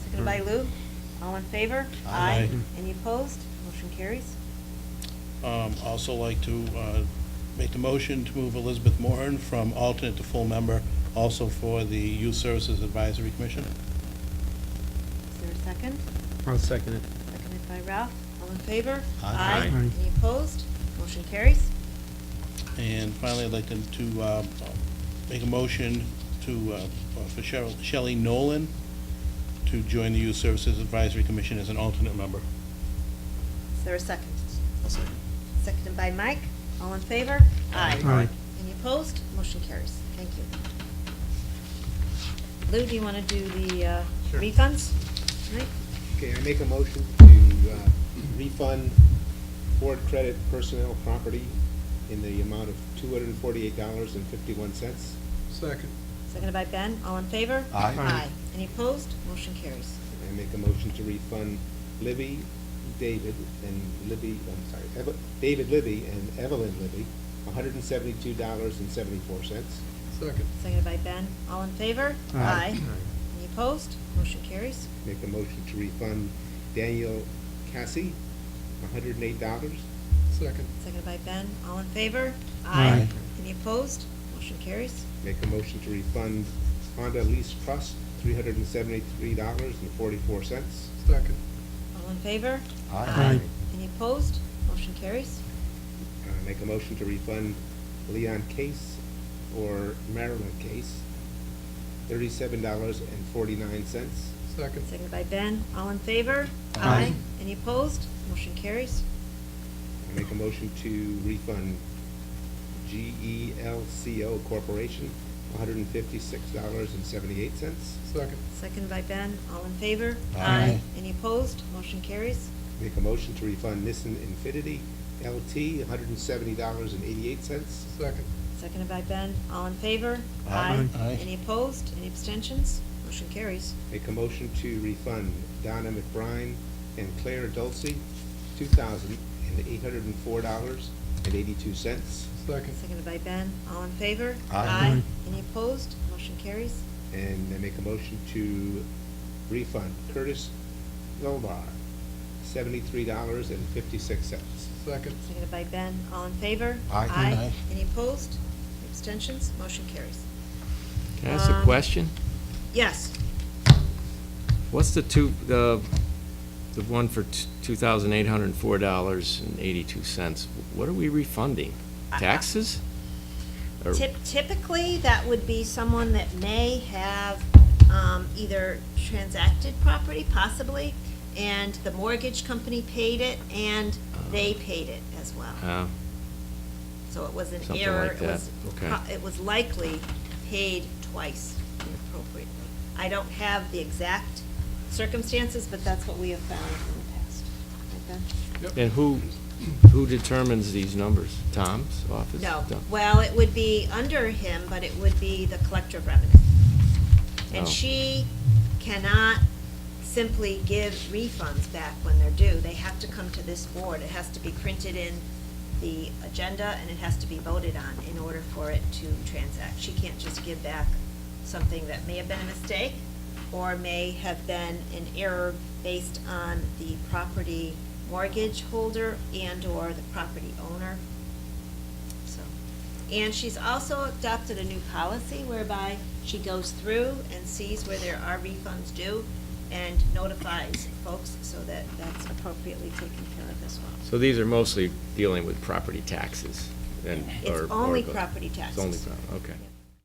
by Lou. All in favor? Aye. Any opposed? Motion carries. Um, Also like to uh, make the motion to move Elizabeth Moran from alternate to full member, also for the Youth Services Advisory Commission. Is there a second? I'll second it. Seconded by Ralph. All in favor? Aye. Aye. Any opposed? Motion carries. And finally, I'd like to- to uh, make a motion to, uh, for Cheryl- Shelley Nolan to join the Youth Services Advisory Commission as an alternate member. Is there a second? I'll second. Seconded by Mike. All in favor? Aye. Any opposed? Motion carries. Thank you. Lou, do you want to do the uh, Sure. refunds? Mike? Okay, I make a motion to uh, refund board credit personnel property in the amount of two hundred and forty-eight dollars and fifty-one cents. Second. Seconded by Ben. All in favor? Aye. Aye. Any opposed? Motion carries. I make a motion to refund Libby, David, and Libby, I'm sorry, Eve- David Libby and Evelyn Libby, hundred and seventy-two dollars and seventy-four cents. Second. Seconded by Ben. All in favor? Aye. Any opposed? Motion carries. Make a motion to refund Daniel Cassie, hundred and eight dollars. Second. Seconded by Ben. All in favor? Aye. Any opposed? Motion carries. Make a motion to refund Honda Lease Trust, three hundred and seventy-three dollars and forty-four cents. Second. All in favor? Aye. Any opposed? Motion carries. Uh, Make a motion to refund Leon Case or Marilyn Case, thirty-seven dollars and forty-nine cents. Second. Seconded by Ben. All in favor? Aye. Any opposed? Motion carries. Make a motion to refund E GELCO Corporation, one hundred and fifty-six dollars and seventy-eight cents. Second. Seconded by Ben. All in favor? Aye. Any opposed? Motion carries. Make a motion to refund Nissan Infinity LT, one hundred and seventy dollars and eighty-eight cents. Second. Seconded by Ben. All in favor? Aye. Aye. Any opposed? Any abstentions? Motion carries. Make a motion to refund Donna McBride and Claire Dulce, two thousand and eight hundred and four dollars and eighty-two cents. Second. Seconded by Ben. All in favor? Aye. Any opposed? Motion carries. And I make a motion to refund Curtis Lobar, seventy-three dollars and fifty-six cents. Second. Seconded by Ben. All in favor? Aye. Aye. Aye. Any opposed? Abstentions? Motion carries. Can I ask a Um, question? Yes. What's the two, the, the one for two thousand eight hundred and four dollars and eighty-two cents? What are we refunding? I- I- Taxes? Or- Typ- Typically, that would be someone that may have um, either transacted property, possibly, and the mortgage company paid it, and they paid it as well. Uh, So it was an Something error. like It that. was Okay. pro- It was likely paid twice inappropriately. I don't have the exact circumstances, but that's what we have found in the past. Right, Ben? And who, who determines these numbers? Tom's office? No, Tom? well, it would be under him, but it would be the collector of revenue. And Oh. she cannot simply give refunds back when they're due. They have to come to this board. It has to be printed in the agenda, and it has to be voted on in order for it to transact. She can't just give back something that may have been a mistake, or may have been an error based on the property mortgage holder and/or the property owner. So, and she's also adopted a new policy whereby she goes through and sees where there are refunds due and notifies folks so that that's appropriately taken care of as well. So these are mostly dealing with property taxes and, or. It's or only go- property It's taxes. only, pro- okay. Yep.